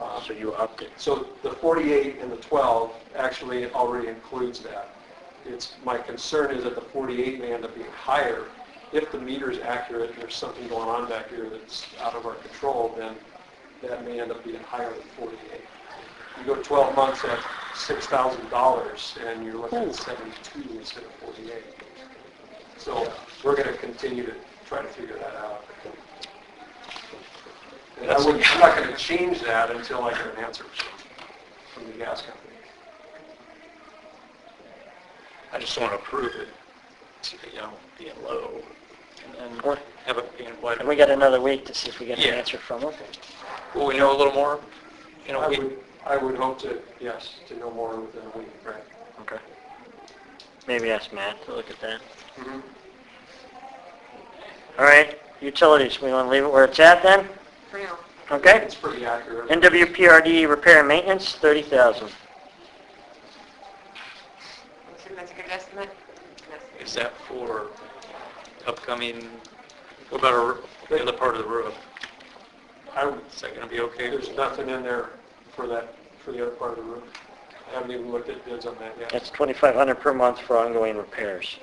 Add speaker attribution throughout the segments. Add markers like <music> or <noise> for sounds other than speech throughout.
Speaker 1: Uh,
Speaker 2: So you upped it.
Speaker 1: So the 48 and the 12 actually already includes that. It's, my concern is that the 48 may end up being higher. If the meter's accurate, and there's something going on back here that's out of our control, then that may end up being higher than 48. You go 12 months at $6,000, and you're looking at 72 instead of 48. So we're going to continue to try to figure that out. And I wouldn't, I'm not going to change that until I get an answer from the gas company.
Speaker 2: I just want to approve it, to, you know, being low and then
Speaker 3: Or-
Speaker 2: have it being wide.
Speaker 3: And we got another week to see if we get an
Speaker 2: Yeah.
Speaker 3: answer from them.
Speaker 2: Will we know a little more in
Speaker 1: I
Speaker 2: a week?
Speaker 1: would, I would hope to, yes, to know more within a week, right?
Speaker 2: Okay.
Speaker 3: Maybe ask Matt to look at that.
Speaker 1: Mhm.
Speaker 3: All right, utilities, we want to leave it where it's at then?
Speaker 4: for now.
Speaker 3: Okay?
Speaker 1: It's pretty accurate.
Speaker 3: NWPRD repair and maintenance, 30,000.
Speaker 4: I'm assuming that's a good estimate? Yes.
Speaker 2: Is that for upcoming, what about our- the other part of the roof?
Speaker 1: I would-
Speaker 2: Is that going to be okay?
Speaker 1: There's nothing in there for that, for the other part of the roof. I haven't even looked at bids on that yet.
Speaker 3: That's 2,500 per month for ongoing repairs.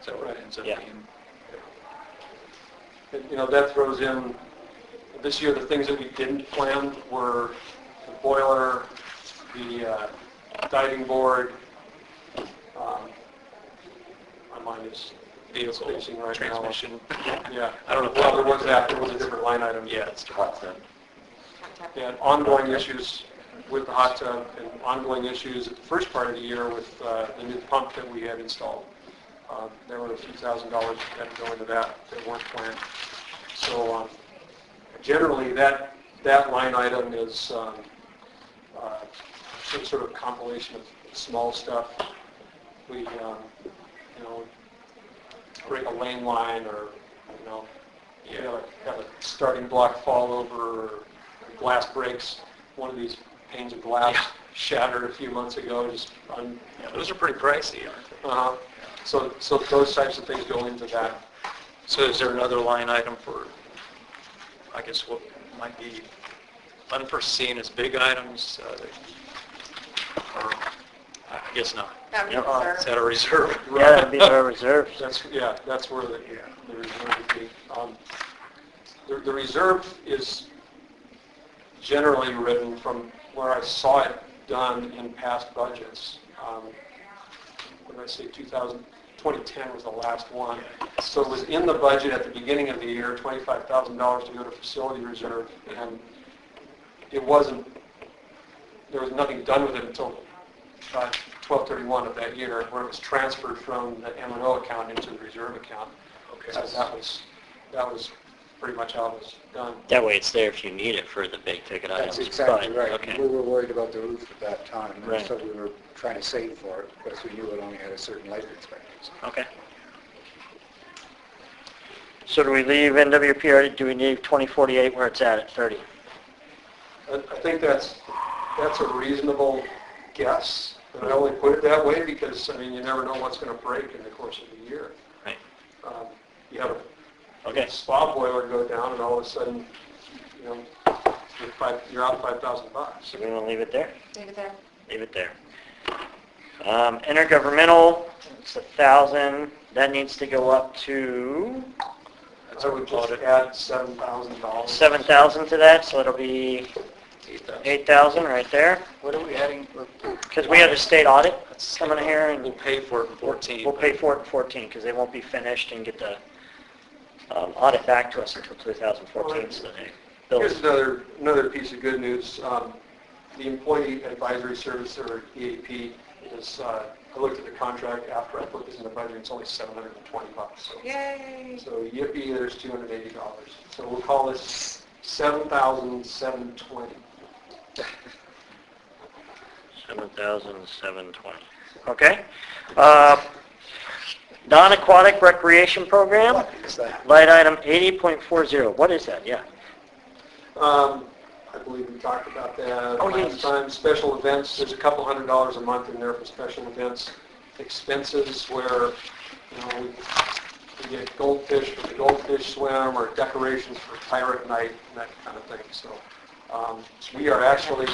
Speaker 2: Is that what it ends up
Speaker 3: Yeah.
Speaker 2: being?
Speaker 1: And, You know, that throws in, this year, the things that we didn't plan were the boiler, the uh, diving board. um, My mind is spacing
Speaker 2: Vehicle,
Speaker 1: right now.
Speaker 2: transmission?
Speaker 1: Yeah.
Speaker 2: <laughs> I don't know.
Speaker 1: Well, there was that, there was a different line item.
Speaker 2: Yeah, it's hot then.
Speaker 1: And ongoing issues with the hot tub and ongoing issues at the first part of the year with uh, the new pump that we had installed. Uh, There were a few thousand dollars that had to go into that that weren't planned. So um, generally, that, that line item is um, uh, some sort of compilation of small stuff. We, um, you know, break a lane line or, you know, you have a, have a starting block fall over, or glass breaks, one of these panes of glass
Speaker 2: Yeah.
Speaker 1: shattered a few months ago, just un,
Speaker 2: Yeah, those are pretty pricey, aren't they?
Speaker 1: uh, so, so those types of things go into that.
Speaker 2: So is there another line item for, I guess what might be unforeseen as big items? uh, Or, I guess not.
Speaker 4: That was
Speaker 3: Yep.
Speaker 1: Uh,
Speaker 4: reserved.
Speaker 2: Is that a reserve?
Speaker 3: Yeah, that'd be our
Speaker 1: <laughs>
Speaker 3: reserves.
Speaker 1: That's, yeah, that's where the, the reserve would be. Um, The, the reserve is generally written from where I saw it done in past budgets. Um, When I say 2000, 2010 was the last one. So it was in the budget at the beginning of the year, $25,000 to go to facility reserve, and it wasn't, there was nothing done with it until uh, 12/31 of that year, where it was transferred from the M and O account into the reserve account.
Speaker 2: Okay.
Speaker 1: So That was, that was pretty much how it was done.
Speaker 3: That way it's there if you need it for the big ticket items.
Speaker 5: That's exactly
Speaker 3: Fine,
Speaker 5: right. We
Speaker 3: Okay.
Speaker 5: were worried about the roof at that time,
Speaker 3: Right.
Speaker 5: and so we were trying to save for it, because we knew it only had a certain life expectancy.
Speaker 3: Okay. So do we leave NWPRD, do we leave 2048 where it's at, at 30?
Speaker 1: I I think that's, that's a reasonable guess, and I only put it that way because, I mean, you never know what's going to break in the course of the year.
Speaker 3: Right.
Speaker 1: Um, You have
Speaker 3: Okay.
Speaker 1: a spa boiler go down, and all of a sudden, you know, you're five, you're out 5,000 bucks.
Speaker 3: So we want to leave it there?
Speaker 4: Leave it there.
Speaker 3: Leave it there. Um, intergovernmental, it's a thousand, that needs to go up to
Speaker 1: I would just add $7,000.
Speaker 3: seven thousand to that, so it'll be eight thousand right there.
Speaker 5: What are we adding?
Speaker 3: Because we had a state audit coming here
Speaker 2: We'll
Speaker 3: and
Speaker 2: pay for it in 14.
Speaker 3: we'll pay for it in fourteen, because they won't be finished and get the, um, audit back to us until two thousand fourteen, so they.
Speaker 1: Here's
Speaker 3: Bill's-
Speaker 1: another, another piece of good news. Um, The Employee Advisory Service, or EAP, is, uh, I looked at the contract after I put this in the budget, it's only 720 bucks. so-
Speaker 4: Yay!
Speaker 1: So yippee, there's $280. So we'll call this 7,720.
Speaker 3: 7,720. Okay. Uh, Non-aquatic recreation program,
Speaker 5: Is that?
Speaker 3: light item 80.40. What is that? Yeah.
Speaker 1: Um, I believe we talked about that
Speaker 3: Oh, yes.
Speaker 1: last time. Special events, there's a couple hundred dollars a month in there for special events. Expenses where, you know, we- we get goldfish for the goldfish swim or decorations for pirate night and that kind of thing. So Um, We are actually